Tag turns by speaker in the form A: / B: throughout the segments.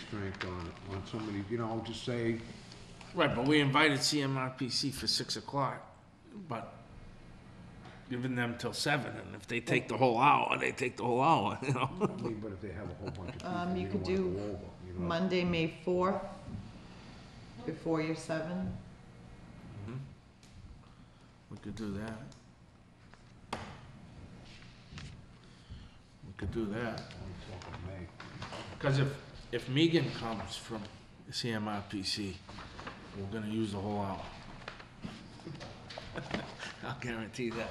A: strength on, on somebody, you know, to say,
B: Right, but we invited CMRPC for six o'clock, but giving them till seven, and if they take the whole hour, they take the whole hour, you know?
A: I mean, but if they have a whole bunch of people,
C: Um, you
A: you
C: could
A: don't wanna
C: do
A: go over, you know.
C: Monday, May fourth, before your seven.
B: We could do that. We could do
A: Only
B: that,
A: talk of May.
B: because if, if Megan comes from CMRPC, we're gonna use the whole hour. I'll guarantee that.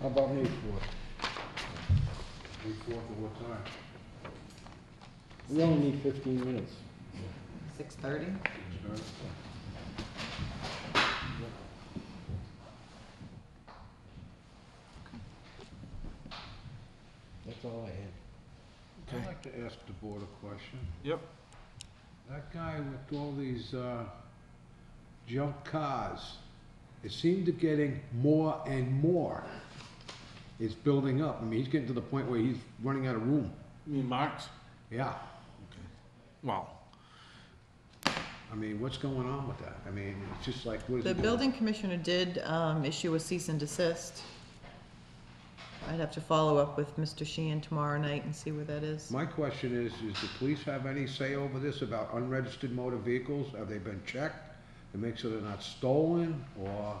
A: How about May fourth? May fourth at what time?
D: We only need fifteen minutes.
C: Six thirty.
A: Six thirty?
D: That's all I had.
A: I'd like to ask the board a question.
B: Yep.
A: That guy with all these, uh, junk cars, it seemed to getting more and more. It's building up. I mean, he's getting to the point where he's running out of room.
B: Me and Mark's?
A: Yeah.
B: Well,
A: I mean, what's going on with that? I mean, it's just like, what is
C: The
A: it?
C: building commissioner did, um, issue a cease and desist. I'd have to follow up with Mr. Sheehan tomorrow night and see where that is.
A: My question is, is the police have any say over this about unregistered motor vehicles? Have they been checked to make sure they're not stolen or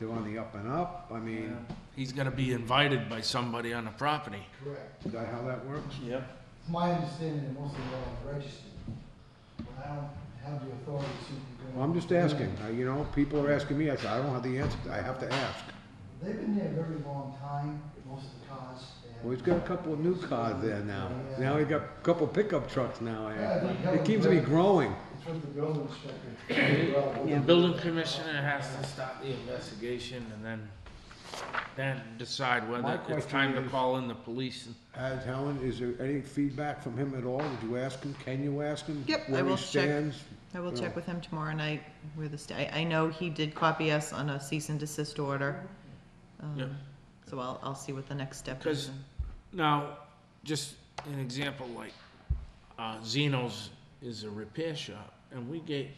A: they're on the up and up? I mean,
B: he's gonna be invited by somebody on the property.
E: Correct.
A: is that how that works?
B: Yep.
E: It's my understanding that most of them are registered. But I don't have the authority to. go-
A: Well, I'm just asking, uh, you know, people are asking me, I said, I don't have the answer, I have to ask.
E: They've been there a very long time, most of the cars. and-
A: Well, he's got a couple of new cars there now. Now he got a couple pickup trucks now, eh? It keeps me growing.
E: It's with the building inspector.
B: The building commissioner has to stop the investigation and then, then decide
A: My
B: whether it's
A: question
B: time to
A: is-
B: call in the police. and-
A: As Helen, is there any feedback from him at all? Did you ask him? Can you ask him?
C: Yep, I
A: Where
C: will
A: he
C: check.
A: stands?
C: I will check
A: Oh.
C: with him tomorrow night where the, sta- I, I know he did copy us on a cease and desist order. Um,
B: Yep.
C: So I'll, I'll see what the next step is.
B: Because- Now, just an example, like, uh, Zeno's is a repair shop and we get,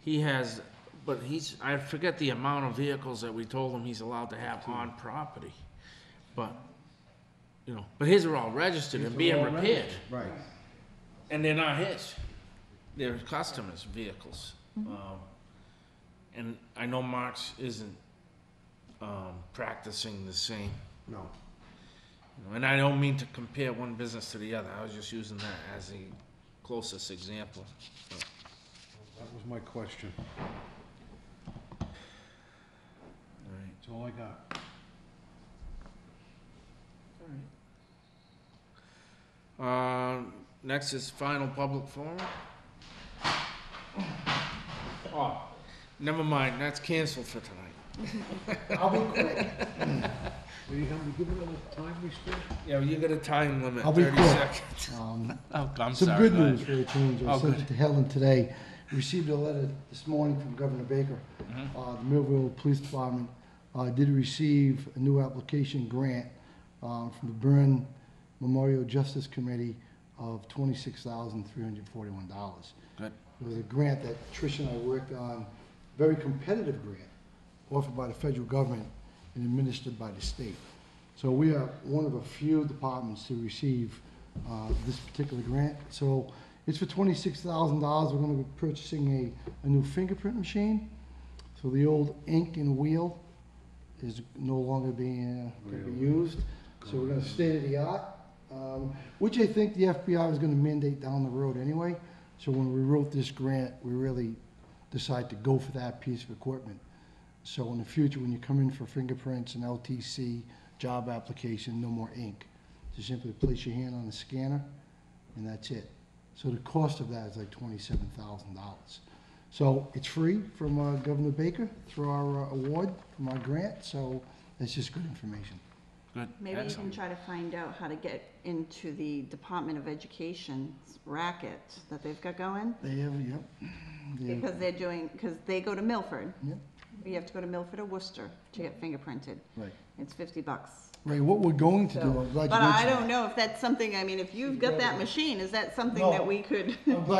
B: he has, but he's, I forget the amount of vehicles that we told him he's allowed to have on property. But, you know, but his are all registered and being repaired.
A: Right.
B: And they're not his. They're customers' vehicles. Um, and I know Marx isn't um, practicing the same.
A: No.
B: You know, And I don't mean to compare one business to the other. I was just using that as the closest example.
A: That was my question.
B: All right.
A: That's all I got.
B: Um, next is final public forum. Oh, never mind. That's canceled for tonight.
E: I'll be quick.
A: Will you help me give it a time restraint?
B: Yeah, you got a time limit.
E: I'll be
B: 30
E: quick.
B: seconds.
E: Um,
B: Oh, I'm
E: Some
B: sorry.
E: good
B: go ahead.
E: news for a change. I
B: Oh,
E: sent
B: good.
E: it to Helen today. Received a letter this morning from Governor Baker.
B: Mm-hmm.
E: Uh, The Millville Police Department uh, did receive a new application grant um, from the Byrne Memorial Justice Committee of $26,341.
B: Good.
E: It was a grant that Trish and I worked on, very competitive grant offered by the federal government and administered by the state. So we are one of a few departments to receive uh, this particular grant. So it's for twenty-six thousand dollars. We're gonna be purchasing a, a new fingerprint machine. So the old ink and wheel is no longer being, uh, gonna be used. So we're gonna state of the art, um, which I think the FBI is gonna mandate down the road anyway. So when we wrote this grant, we really decided to go for that piece of equipment. So in the future, when you come in for fingerprints and LTC, job application, no more ink. Just simply place your hand on the scanner, and that's it. So the cost of that is like twenty-seven thousand dollars. So it's free from uh, Governor Baker through our uh, award, from our grant, so that's just good information.
B: Good.
F: Maybe you can
B: Excellent.
F: try to find out how to get into the Department of Education's racket that they've got going,
E: They have, yep. they have-
F: because they're doing, because they go to Milford.
E: Yep.
F: You have to go to Milford or Worcester to get fingerprinted.
E: Right.
F: It's fifty bucks.
E: Right, what we're going to do,
F: So-
E: I'm glad you mentioned
F: But I
E: that.
F: don't know if that's something, I mean, if you've got that machine, is that something that we could?
E: I'm glad